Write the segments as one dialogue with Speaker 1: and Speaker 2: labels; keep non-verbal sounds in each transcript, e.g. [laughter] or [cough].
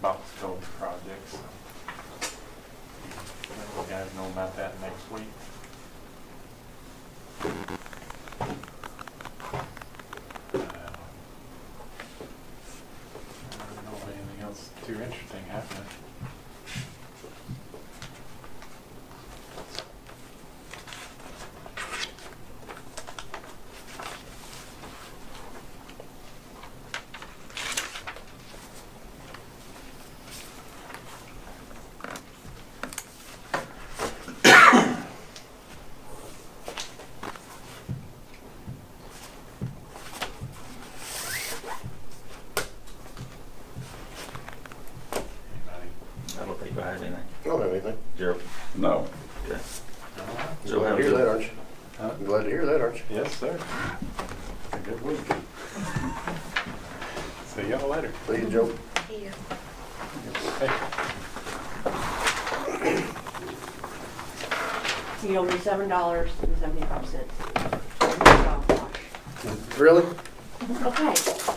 Speaker 1: box culvert project, so. Let the guys know about that next week. Uh, I don't know of anything else too interesting happening. Anybody?
Speaker 2: I don't think I have anything.
Speaker 3: I don't have anything.
Speaker 2: Gerald?
Speaker 4: No.
Speaker 2: Okay.
Speaker 1: No?
Speaker 2: So
Speaker 3: Glad
Speaker 2: how
Speaker 3: to
Speaker 2: was
Speaker 3: hear that,
Speaker 2: it?
Speaker 3: aren't you?
Speaker 1: Huh?
Speaker 3: I'm Glad to hear that, aren't you?
Speaker 1: Yes, sir. It's a good week. See y'all later.
Speaker 3: See you, Joe.
Speaker 5: Yeah.
Speaker 6: He owed me seven dollars and seventy-five cents.
Speaker 3: Really?
Speaker 6: Okay,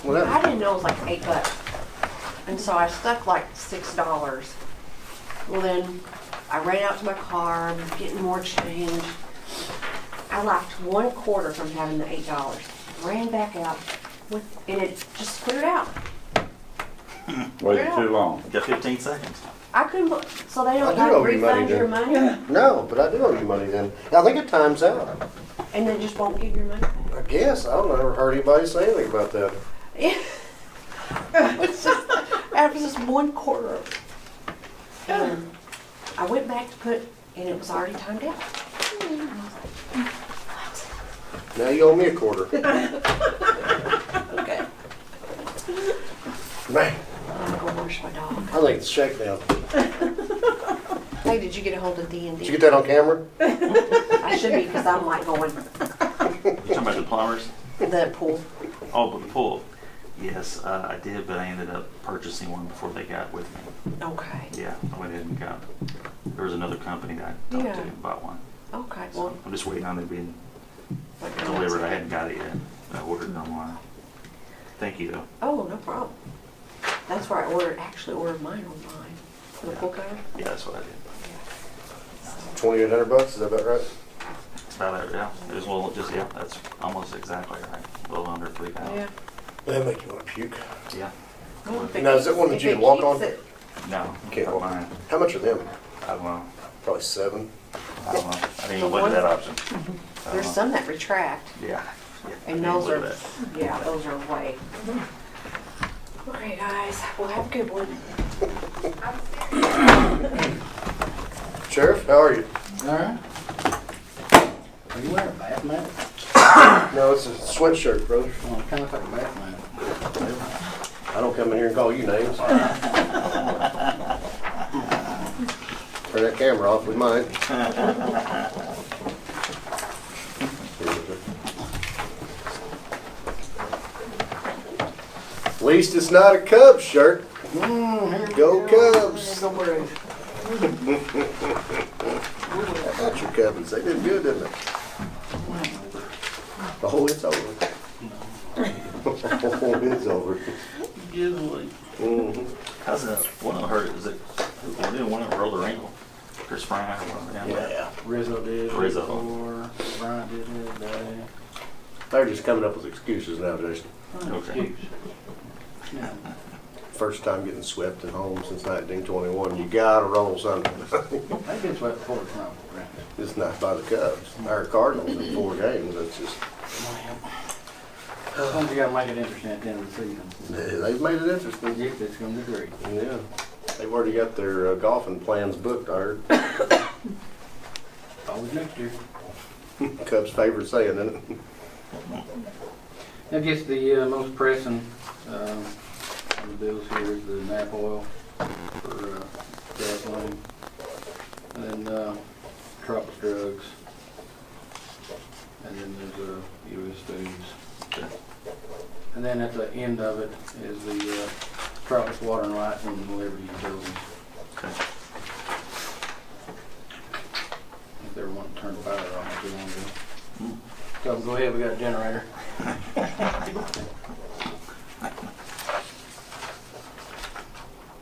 Speaker 3: Well,
Speaker 6: I
Speaker 3: that,
Speaker 6: didn't know it was like eight bucks. And so I stuck like six dollars. Well, then I ran out to my car, I'm getting more change. I left one quarter from having the eight dollars. Ran back out with, and it just cleared out.
Speaker 4: Waited too long.
Speaker 2: Got fifteen seconds.
Speaker 6: I couldn't, bel- so they
Speaker 3: I
Speaker 6: don't
Speaker 3: do owe
Speaker 6: like
Speaker 3: you money,
Speaker 6: refund your money
Speaker 3: no, but I do owe you money then. I think it times out.
Speaker 6: and they just won't give your money?
Speaker 3: I guess. I don't ever heard anybody say anything about that.
Speaker 6: Yeah. [laughs] It's just- that was just one quarter of it. And I went back to put, and it was already timed out. And I was like, "What?"
Speaker 3: Now you owe me a quarter.
Speaker 6: Okay,
Speaker 3: Man,
Speaker 6: I'm gonna go wash my dog.
Speaker 3: I think it's shake now.
Speaker 6: Hey, did you get a hold of D and
Speaker 3: Did you
Speaker 6: D?
Speaker 3: get that on camera?
Speaker 6: I should be, because I'm like going
Speaker 2: You talking about the plumbers?
Speaker 6: the pool.
Speaker 2: Oh, but the pool. Yes, uh, I did, but I ended up purchasing one before they got with me.
Speaker 6: Okay,
Speaker 2: Yeah, I went ahead and got, there was another company that I talked to
Speaker 6: Yeah.
Speaker 2: and bought one.
Speaker 6: okay, well.
Speaker 2: So I'm just waiting on it being
Speaker 6: like,
Speaker 2: delivered. I hadn't got it yet. I ordered it online. Thank you though.
Speaker 6: Oh, no problem. That's where I ordered, actually ordered mine online, for the pool cover.
Speaker 2: Yeah, that's what I did.
Speaker 6: Yeah. So-
Speaker 3: Twenty-eight hundred bucks, is that about right?
Speaker 2: It's about it, yeah. It was a little, just, yeah, that's almost exactly right. A little under three
Speaker 6: Yeah.
Speaker 2: pounds.
Speaker 3: That make you wanna puke.
Speaker 2: Yeah.
Speaker 6: Well, if it
Speaker 3: Now, is that
Speaker 6: keeps-
Speaker 3: one that
Speaker 6: if
Speaker 3: you
Speaker 6: it
Speaker 3: walk
Speaker 6: keeps
Speaker 3: on?
Speaker 6: it-
Speaker 2: No.
Speaker 3: Okay,
Speaker 2: not
Speaker 3: well-
Speaker 2: mine.
Speaker 3: How much are them?
Speaker 2: I don't know.
Speaker 3: Probably seven.
Speaker 2: I don't know. I didn't
Speaker 6: The
Speaker 2: even look at
Speaker 6: one-
Speaker 2: that option. I don't
Speaker 6: There's
Speaker 2: know.
Speaker 6: some that retract,
Speaker 2: Yeah. yeah, I
Speaker 6: and
Speaker 2: didn't
Speaker 6: those
Speaker 2: look
Speaker 6: are,
Speaker 2: at that.
Speaker 6: yeah, those are way. All right, guys, well, have a good one.
Speaker 3: Sheriff, how are you?
Speaker 4: All right. Are you wearing a bath mat?
Speaker 3: No, it's a sweatshirt, brother.
Speaker 4: Well, kind of like a bath mat.
Speaker 3: I don't come in here and call you names. Turn that camera off, we might. At least it's not a Cubs shirt. Mm, Go Cubs.
Speaker 4: Go Braves.
Speaker 3: How about your Cubs? They did good, didn't they? Oh, it's over. [laughs] Oh, it's over.
Speaker 2: Usually.
Speaker 3: Mhm.
Speaker 2: How's that? One of them hurt. Was it? One did one of them rolled their ankle. Chris Bryant or one of them.
Speaker 3: Yeah,
Speaker 4: Rizzo did. it
Speaker 2: Rizzo.
Speaker 4: before, Bryant did it today.
Speaker 3: they're just coming up with excuses now, Jason.
Speaker 2: Okay.
Speaker 4: Yeah.
Speaker 3: First time getting swept at home since 1921. You gotta roll something. [laughs]
Speaker 4: They've been swept before, it's not for granted.
Speaker 3: It's not by the Cubs or Cardinals in four games. That's just
Speaker 4: Sometimes you gotta make it interesting at the end of the season.
Speaker 3: they've made it interesting.
Speaker 4: Predict it's gonna be great.
Speaker 3: Yeah, they've already got their uh, golfing plans booked. I heard
Speaker 4: Always next year.
Speaker 3: Cubs' favorite saying, isn't it?
Speaker 4: I guess the uh, most pressing um, of the bills here is the nap oil for uh, gasoline, and then uh, Tropic Drugs, and then there's uh, U.S. Foods. And then at the end of it is the uh, Tropic Water and Light and the Liberty Utilities,
Speaker 2: Okay.
Speaker 4: if they want to turn the power off if they want to. So go ahead, we got a generator.